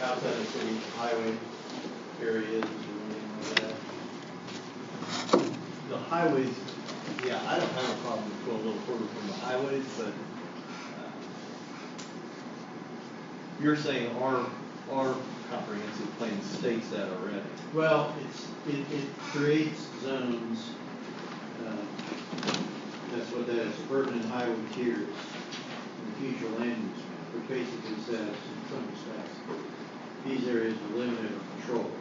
any highway areas or anything like that. The highways, yeah, I don't have a problem with going a little further from the highways, but, uh, you're saying our, our comprehensive plan states that already. Well, it's, it, it creates zones, um, that's what that is, urban and highway tiers in the future land use map, which basically says in some respects, these areas are limited or controlled.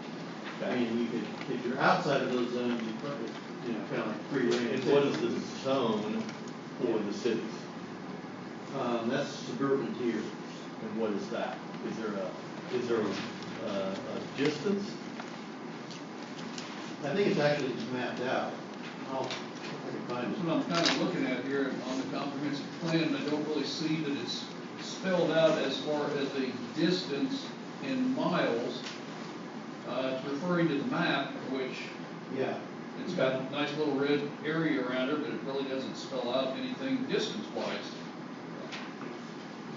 I mean, you could, if you're outside of those zones, you probably, you know, kind of like free range. And what is the zone for the cities? Um, that's suburban tier. And what is that? Is there a, is there a, a a distance? I think it's actually just mapped out. I'll, I can find That's it. what I'm kind of looking at here on the comprehensive plan, and I don't really see that it's spelled out as far as a distance in miles. Uh, it's referring to the map, which Yeah. it's got a nice little red area around it, but it really doesn't spell out anything distance wise.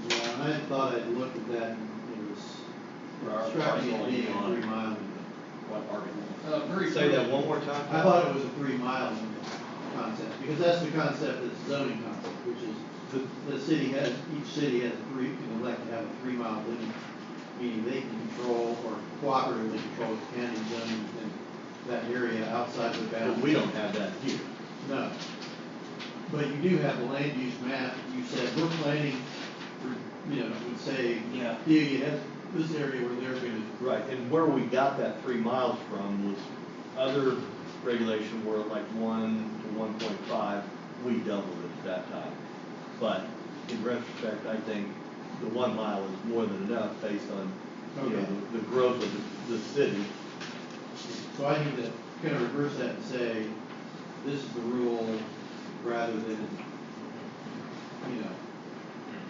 Yeah, and I thought I'd looked at that and it was Our striking parcel to me on a it. three mile limit. What are Uh, very. Say that one more time. I thought it was a three mile limit concept, because that's the concept that's zoning concept, which is the, the city has, each city has a three, can elect to have a three mile limit, meaning they can control or cooperatively control the county zoning within that area outside the But bounds. we don't have that here. No. But you do have the land use map, you said, we're planning, for, you know, would say, Yeah. yeah, you have this area where they're gonna Right, and where we got that three miles from was other regulation where like one to one point five, we doubled it at that time. But in retrospect, I think the one mile is more than enough based on, you know, Okay. the- the growth of the, the city. So I need to kind of reverse that and say, this is the rule, rather than, you know,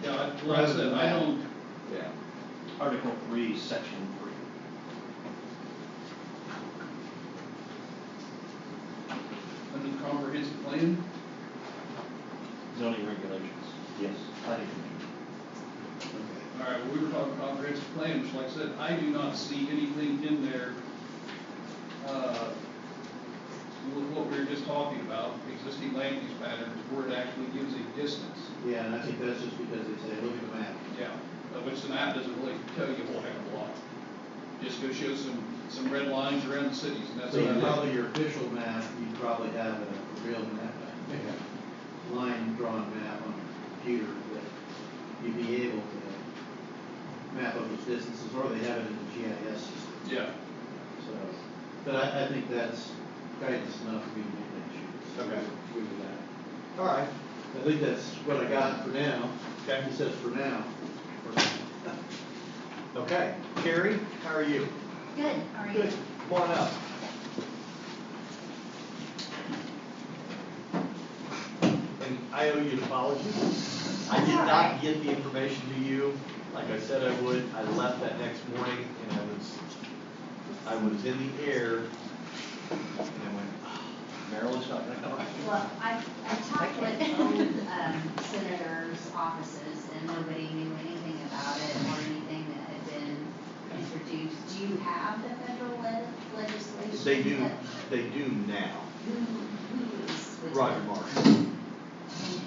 Yeah, I- like I said, I don't, Yeah. Article three, section three. under the comprehensive plan, Zoning regulations. Yes. planning commission. okay. All right, well, we were talking comprehensive plan, which like I said, I do not see anything in there, uh, with what we were just talking about, existing land use patterns, where it actually gives a distance. Yeah, and I think that's just because they say, look at the map. Yeah, uh, which the map doesn't really tell you a whole heck of a lot. Just go show some, some red lines around the cities, and that's So you about it. probably, your official map, you probably have a real map, line drawn map on a computer that you'd be able to map up those distances, or they have it in the GIS system, Yeah, so. But I, I think that's guidance enough for me to make that choice. Okay. Agree with that. All right. I think that's what I got for now. Okay. He says for now. Okay, Carrie, how are you? Good, all right. Good, come on up. And I owe you an apology. I did all not right. get the information to you like I said I would. I left that next morning and I was, I was in the air and I went, "Ah, Maryland's not gonna come. Well, I, I talked with old, um, senators' offices and nobody knew anything about it or anything that had been introduced. Do you have the federal le- legislation? they do, that- they do now. Who, who is with? Roger it? Marsh. And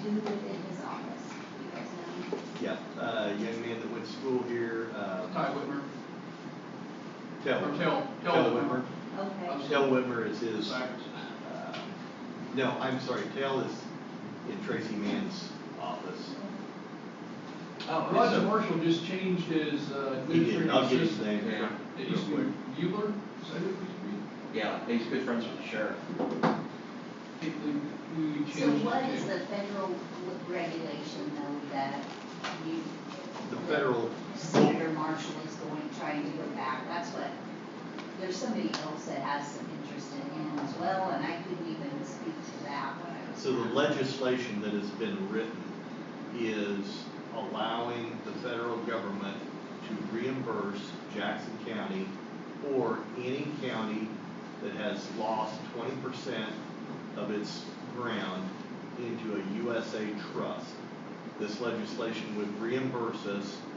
who within his office? You guys know? Yeah, uh, young man that went to school here, uh, Ty Whitmer, Tell. or Tell, Tell Tell Whitmer. Okay, Tell Whitmer is his. Sorry. Uh, No, I'm sorry, Tell is in Tracy Mann's office. Oh, Roger Uh, Marshall just changed his, uh. He did, I'll get his administrative name here. assistant. It real used to quick. be Bueller, is that who it used to be? Yeah, he's good friends with the sheriff. so what is the federal regulation though that you? The federal, Senator Marshall is going, trying to go back, that's what, there's somebody else that has some interest in him as well, and I couldn't even speak to that when I was. so the legislation that has been written is allowing the federal government to reimburse Jackson County or any county that has lost twenty percent of its ground into a USA trust. This legislation would reimburse us